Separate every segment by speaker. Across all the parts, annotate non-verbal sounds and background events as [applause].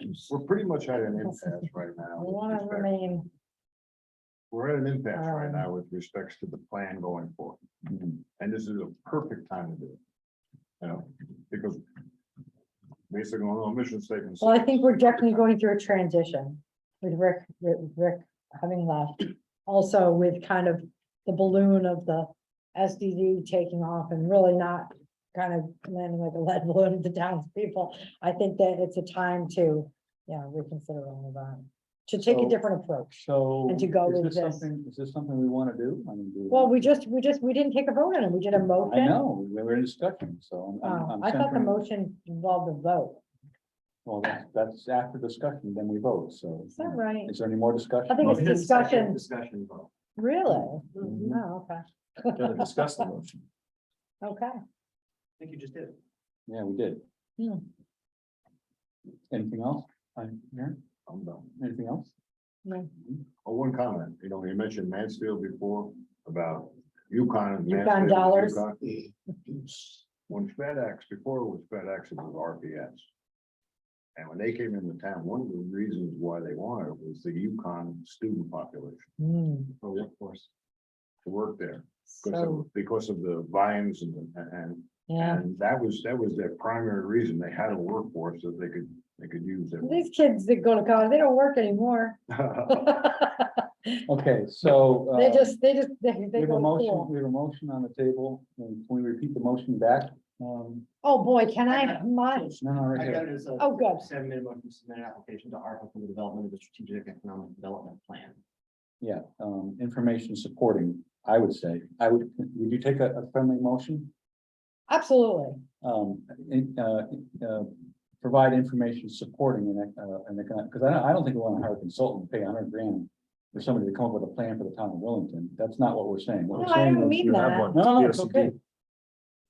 Speaker 1: issues.
Speaker 2: We're pretty much at an impasse right now.
Speaker 1: We
Speaker 2: with
Speaker 1: want to
Speaker 2: respect-
Speaker 1: remain,
Speaker 2: We're at an impasse right
Speaker 1: um, Mhm.
Speaker 2: now with respects to the plan going forward. And this is a perfect time to do it. You know, because basically on our mission statement.
Speaker 1: well, I
Speaker 2: says-
Speaker 1: think we're definitely going through a transition with Rick, with Rick having left. Also with kind of the balloon of the SDD taking off and really not kind of landing like a lead [laughs] balloon to townspeople. I think that it's a time to, yeah, reconsider all of that, to take a
Speaker 3: So-
Speaker 1: different approach.
Speaker 3: So.
Speaker 1: And to go
Speaker 3: is
Speaker 1: with
Speaker 3: this
Speaker 1: this.
Speaker 3: something- Is this something we want to do? I mean. do
Speaker 1: Well, we just, we just, we didn't take a vote on it. We did a
Speaker 3: I
Speaker 1: motion.
Speaker 3: know, we were in discussion, so. I'm- I'm-
Speaker 1: Oh,
Speaker 3: I'm
Speaker 1: I thought the
Speaker 3: centering-
Speaker 1: motion involved a vote.
Speaker 3: Well, that's- that's after discussion, then we vote, so.
Speaker 1: Is that right?
Speaker 3: Is there any more discussion?
Speaker 1: I think it's
Speaker 4: Motion and second
Speaker 1: discussion.
Speaker 4: Discussion
Speaker 1: [laughs]
Speaker 4: vote.
Speaker 1: Really?
Speaker 3: Mhm.
Speaker 1: Oh, okay,
Speaker 4: Gotta discuss the motion.
Speaker 1: okay.
Speaker 4: I think you just did.
Speaker 3: Yeah, we did.
Speaker 1: Yeah.
Speaker 3: Anything else? I'm here,
Speaker 2: I'm done.
Speaker 3: anything else?
Speaker 1: No.
Speaker 2: Oh, one comment, you know, you mentioned Mansfield before about Yukon. and
Speaker 1: Yukon
Speaker 2: Mansfield,
Speaker 1: dollars.
Speaker 2: Yukon. When FedEx, before it was FedEx, it was RPS. And when they came into town, one of the reasons why they wanted it was the Yukon student population,
Speaker 1: Hmm,
Speaker 2: the workforce. To work there, because
Speaker 1: So,
Speaker 2: of, because of the vines and, and,
Speaker 1: yeah,
Speaker 2: and that was, that was their primary reason, they had a workforce that they could, they could use. it.
Speaker 1: these kids that go to college, they don't work anymore. [laughs]
Speaker 2: [laughs]
Speaker 1: They
Speaker 3: Okay, so. uh,
Speaker 1: just, they just, they,
Speaker 3: We
Speaker 1: they
Speaker 3: have
Speaker 1: go
Speaker 3: a
Speaker 1: to
Speaker 3: motion,
Speaker 1: school.
Speaker 3: we have a motion on the table, and can we repeat the motion back? Um,
Speaker 1: Oh, boy, can I, have my,
Speaker 3: no, no, right
Speaker 4: I
Speaker 3: here.
Speaker 4: got it as a
Speaker 1: oh, good.
Speaker 4: seven minute motion to submit an application to ARPA for the development of the strategic economic development plan.
Speaker 3: Yeah, um, information supporting, I would say, I would, would you take a, a friendly motion?
Speaker 1: Absolutely.
Speaker 3: Um, in- uh, uh, provide information supporting an, ec- uh, an economic, because I don't, I don't think we want to hire a consultant, and pay a hundred grand for somebody to come up with a plan for the town of Wellington. That's not what we're saying. What
Speaker 1: No,
Speaker 3: we're
Speaker 1: I
Speaker 3: saying
Speaker 1: don't
Speaker 3: is-
Speaker 1: mean
Speaker 4: you have
Speaker 1: that.
Speaker 4: one.
Speaker 3: No, no, no, it's
Speaker 4: POCD.
Speaker 3: okay.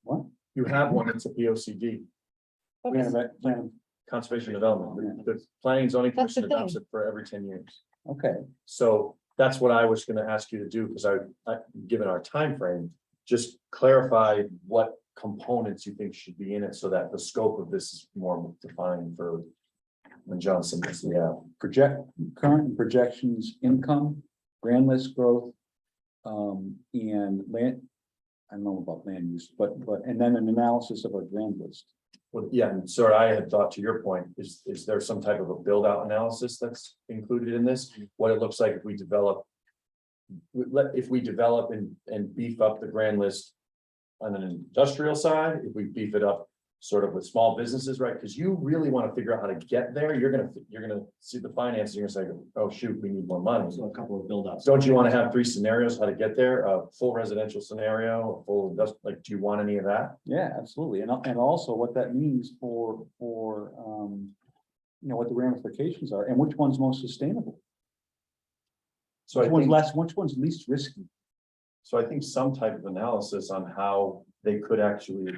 Speaker 3: What?
Speaker 4: You have one, it's a P O C D,
Speaker 1: But
Speaker 3: Plan of,
Speaker 1: this-
Speaker 3: ac- plan
Speaker 4: conservation development, the the planning and zoning
Speaker 1: That's the
Speaker 4: commission adopts
Speaker 1: thing.
Speaker 4: it for every ten years.
Speaker 3: of- okay,
Speaker 4: So that's what I was gonna ask you to do, because I, I, given our time frame, just clarify what components you think should be in it so that the scope of this is more defined for when Johnson, yeah.
Speaker 3: project, current and projections, income, grand list growth. Um, and land, I don't know about land use, but, but, and then an analysis of our grand list.
Speaker 4: Well, yeah, and sir, I had thought to your point, is, is there some type of a build out analysis that's included in this? What it looks like if we develop. we- Let, if we develop and, and beef up the grand list. On an industrial side, if we beef it up sort of with small businesses, right? Because you really want to figure out how to get there. You're gonna, you're gonna see the finances, you're gonna say, oh, shoot, we need more money.
Speaker 5: So a couple of buildouts.
Speaker 4: Don't you want to have three scenarios how to get there? A full residential scenario, a full, industri- like, do you want any of that?
Speaker 3: Yeah, absolutely. And, al- and also what that means for, for, um, you know, what the ramifications are and which one's most sustainable,
Speaker 4: So I
Speaker 3: which one's
Speaker 4: think.
Speaker 3: less, which one's least risky.
Speaker 4: So I think some type of analysis on how they could actually,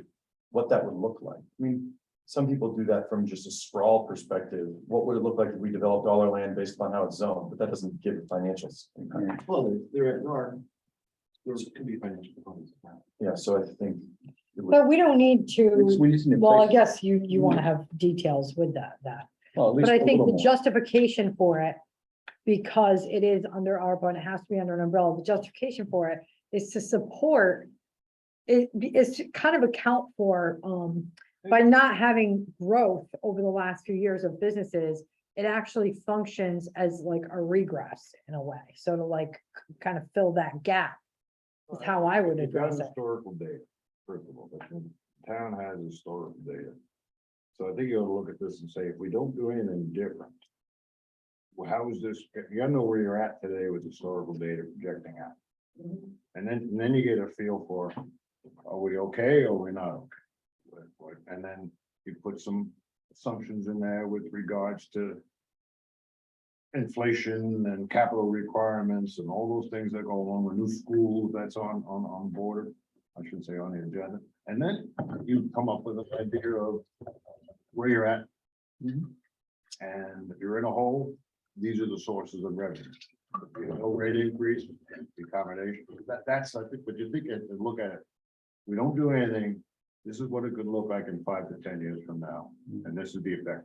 Speaker 4: what that would look like. I mean, some people do that from just a sprawl perspective. What would it look like if we developed all our land based upon how it's zoned? But that doesn't give the financials.
Speaker 3: Yeah.
Speaker 5: Well, there there are. There could be financial components. of that.
Speaker 4: Yeah, so I think. it would-
Speaker 1: But we don't need
Speaker 3: It's-
Speaker 1: to,
Speaker 3: We just need to.
Speaker 1: well, I
Speaker 3: place-
Speaker 1: guess you, you want to have details with that, that.
Speaker 3: well, at least
Speaker 1: But I
Speaker 3: a
Speaker 1: think
Speaker 3: little
Speaker 1: the
Speaker 3: more.
Speaker 1: justification for it, because it is under ARPA and it has to be under an umbrella, the justification for it is to support. It is to kind of account for, um, by not having growth over the last few years of businesses. It actually functions as like a regress in a way, so to like, kind of fill that gap. Is how I would
Speaker 2: You've got
Speaker 1: address it.
Speaker 2: historical data, first of all, but the town has historical data. So I think you ought to look at this and say, if we don't do anything different. Well, how is this, you gotta know where you're at today with historical data projecting out. And then, and then you get a feel for, are we okay or we not? okay? What- what- And then you put some assumptions in there with regards to. Inflation and capital requirements and all those things that go along with new school that's on, on, on board. I shouldn't say on the agenda, and then you come up with an idea of where you're at.
Speaker 3: Mhm.
Speaker 2: And if you're in a hole, these are the sources of revenue. You know, No rate increase, the accommodation, that, that's, I think, but you think, and and look at it. We don't do anything, this is what it could look like in five to ten years from now, and this is the effect